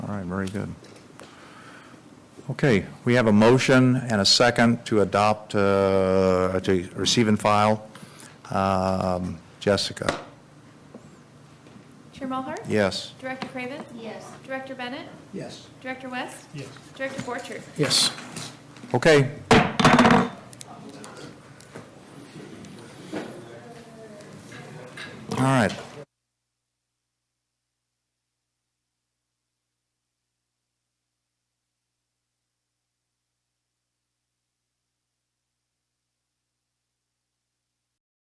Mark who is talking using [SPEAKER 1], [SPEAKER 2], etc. [SPEAKER 1] All right, very good. Okay, we have a motion and a second to adopt, uh, to receive and file. Um, Jessica,
[SPEAKER 2] Chair Mulhart?
[SPEAKER 1] yes.
[SPEAKER 2] Director Craven?
[SPEAKER 3] Yes.
[SPEAKER 2] Director Bennett?
[SPEAKER 4] Yes.
[SPEAKER 2] Director West?
[SPEAKER 4] Yes.
[SPEAKER 2] Director Borchert?
[SPEAKER 4] Yes.
[SPEAKER 1] Okay. All right.